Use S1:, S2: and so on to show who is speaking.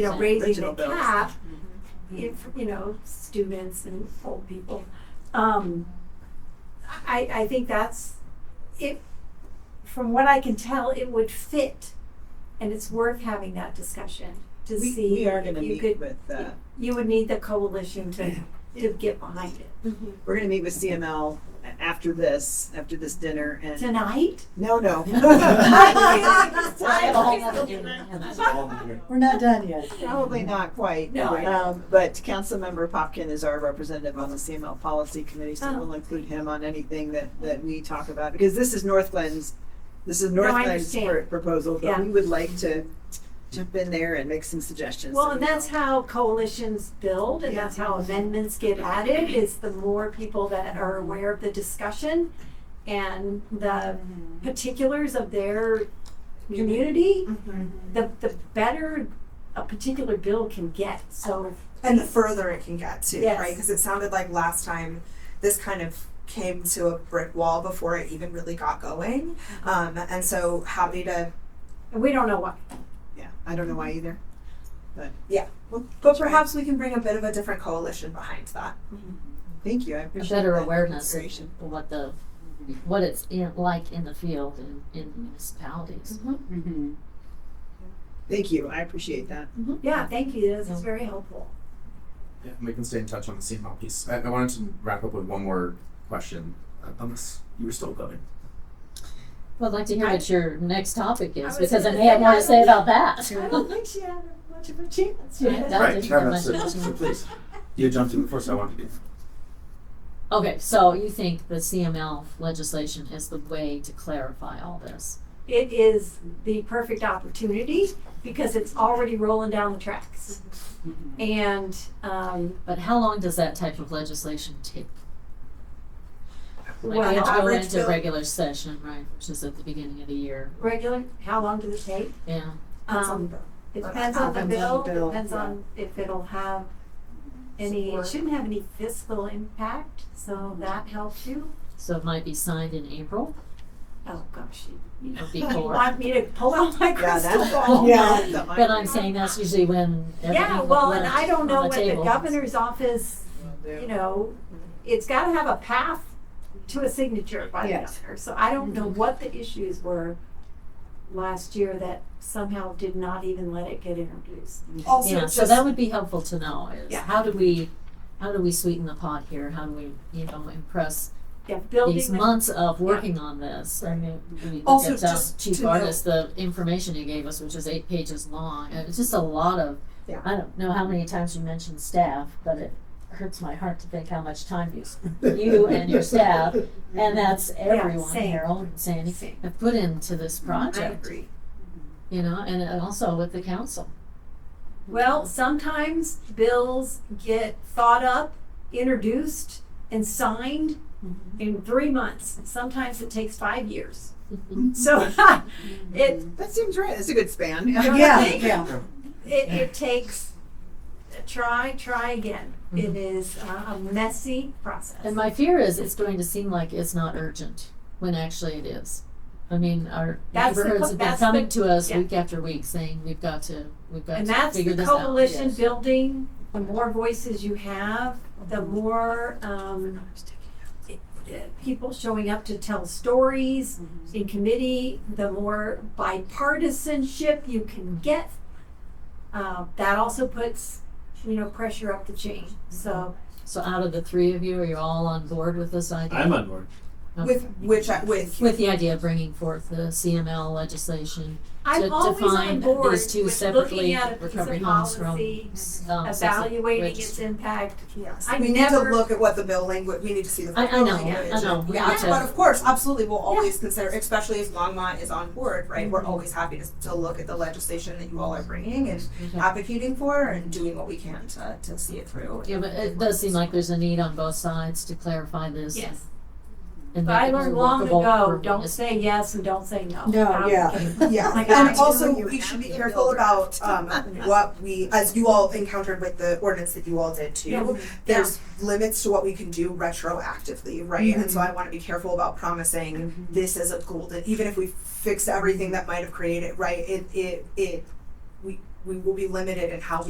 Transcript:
S1: you know, raising the
S2: Original Mm-hmm. bills.
S1: cap, if, you know, students and old people. Um, I, I think that's, it, from what I can tell, it would fit, and it's worth having that discussion to
S2: We,
S1: see.
S2: we are gonna
S1: if you
S2: meet
S1: could-
S2: with, uh,
S1: You would need the coalition to, to get behind it.
S2: we're gonna meet with CML a- after this, after this dinner and,
S1: Tonight?
S2: no, no.
S3: We're not done yet.
S2: Probably not quite.
S1: No, I know.
S2: Um, but Councilmember Popkin is our representative on the CML Policy Committee, so
S1: Oh.
S2: we'll include him on anything that, that we talk about. Because this is North Glen's, this is
S1: No, I
S2: North Glen's
S1: understand.
S2: pr- proposal, but
S1: Yeah.
S2: we would like to jump in there and make some suggestions.
S1: Well, and that's how coalitions build, and that's how amendments get added, is the more people that are aware of the discussion and the particulars of their community, the, the better a particular bill can get, so.
S4: and the further it can get too,
S1: Yes.
S4: right? Because it sounded like last time this kind of came to a brick wall before it even really got going.
S5: Mm-hmm.
S4: Um, and so happy to,
S1: And we don't know what,
S2: Yeah, I don't know why either.
S4: but perhaps we can bring a bit of a different coalition behind that.
S2: Thank you, I
S5: A
S2: appreciate that.
S5: better awareness of
S2: consideration.
S5: what the, what it's in, like in the field and in municipalities.
S2: Mm-hmm. Thank you, I appreciate that.
S1: yeah, thank you, this is very helpful.
S6: Yeah, we can stay in touch on the same piece. I, I wanted to wrap up with one more question, uh, unless you were still going.
S5: Well, I'd like to hear what your next topic
S1: I
S5: is,
S1: was
S5: because I
S1: gonna
S5: may have
S1: say,
S5: more
S1: I
S5: to say
S1: don't-
S5: about that.
S1: I don't think she had much of a chance.
S5: Yeah, that-
S6: Right,
S5: did
S6: no,
S5: have
S6: no,
S5: my-
S6: so, so please, you jumped in before, so I wanted to be.
S5: Okay, so you think the CML legislation is the way to clarify all this?
S1: It is the perfect opportunity, because it's already rolling down the tracks. And, um,
S5: But how long does that type of legislation take? Like,
S1: Well,
S5: we have to go
S4: average
S5: into
S4: bill-
S5: regular session, right, which is at the beginning of the year,
S1: regular, how long does it take?
S5: yeah.
S1: Um, it depends on the
S2: Depends
S1: bill,
S2: on the bill,
S1: depends
S2: yeah.
S1: on if it'll have any, it
S4: Support.
S1: shouldn't have any fiscal impact, so that helps you.
S5: So it might be signed in April
S1: Oh, gosh, you- you
S5: or
S1: you
S5: before.
S1: want me to pull out my
S2: Yeah,
S1: crystal
S2: that's
S1: ball?
S2: yeah. the
S5: But I'm
S2: irony.
S5: saying that's usually when
S1: Yeah,
S5: everything
S1: well,
S5: left
S1: and I don't
S5: on
S1: know what the
S5: table.
S1: governor's office, you know, it's gotta have a path to a signature by the
S3: Yes.
S1: governor, so I don't know what the issues were last year that somehow did not even let it get introduced.
S4: Also,
S5: Yeah,
S4: just,
S5: so that would be helpful to know is
S1: Yeah.
S5: how do we, how do we sweeten the pot here? How do we, you know, impress
S1: Yeah, building.
S5: these
S1: the-
S5: months of working on this? I mean, we look
S4: Also,
S5: at, um,
S4: just
S5: Chief
S4: to
S5: Artist, the information he gave us, which is eight pages long, and it's just a lot of,
S4: Yeah.
S5: I don't know how many times you mentioned staff, but it hurts my heart to think how much time you, s- you and your staff, and that's everyone,
S1: same.
S5: Harold and Sandy,
S1: Same.
S5: have put into this
S1: I
S5: project,
S1: agree.
S5: you know, and and also with the council.
S1: Well, sometimes bills get thought up, introduced, and signed
S5: Mm-hmm.
S1: in three months. Sometimes it takes five years.
S5: Mm-hmm.
S1: So it,
S2: That seems right, that's a good span.
S3: Yeah, yeah.
S1: it, it takes, try, try again.
S5: Mm-hmm.
S1: It is uh, a messy process.
S5: And my fear is it's going to seem like it's not urgent when actually it is. I mean, our
S1: That's the co-
S5: neighborhoods have been
S1: that's the-
S5: coming to us
S1: yeah.
S5: week after week saying we've got to we've got
S1: And
S5: to
S1: that's
S5: figure
S1: the
S5: this
S1: coalition
S5: out.
S1: building, the more voices you have, the more, um, it- it- people showing up to tell stories
S5: Mm-hmm.
S1: in committee, the more bipartisanship you can get. Uh, that also puts, you know, pressure up the chain,
S5: Mm-hmm.
S1: so.
S5: So out of the three of you, are you all on board with this idea?
S7: I'm on board.
S5: Okay.
S4: with which I, with
S5: With the idea of bringing forth the CML legislation to
S1: I'm always on
S5: define
S1: board
S5: these two
S1: with looking
S5: separately
S1: at a piece
S5: recovery
S1: of
S5: homes from
S1: policy,
S5: um,
S1: evaluating
S5: which-
S1: its impact.
S4: yes,
S1: I
S4: we need
S1: never-
S4: to look at what the bill language. We need to see the.
S5: I- I know,
S4: bill language.
S5: I know, we
S4: Yeah,
S5: need to-
S4: but of course, absolutely, we'll always consider, especially if Longmont is on board, right? We're
S5: Mm-hmm.
S4: always happy to, to look at the legislation that you all are bringing and
S5: Mm-hmm.
S4: advocating for, and doing what we can to, to see it through.
S5: Yeah, but it does seem like there's a need on both sides to clarify this.
S1: Yes,
S5: And
S1: but I
S5: make it
S1: learned
S5: more
S1: long
S5: workable
S1: ago,
S5: for
S1: don't
S5: municipalities.
S1: say yes and don't say no.
S3: No,
S1: Um,
S3: yeah.
S4: Yeah,
S1: Like, I
S4: and
S1: do,
S4: also
S2: you
S4: we should be
S2: have to
S4: careful
S2: build
S4: about um, what we, as you all encountered with the ordinance that you all did
S1: Yeah.
S4: too. There's limits to what we can do retroactively, right? And
S1: Mm-hmm.
S4: so I want to be careful about promising this is a golden, even if we fix everything that might have created, right? It, it, it, we, we will be limited in how we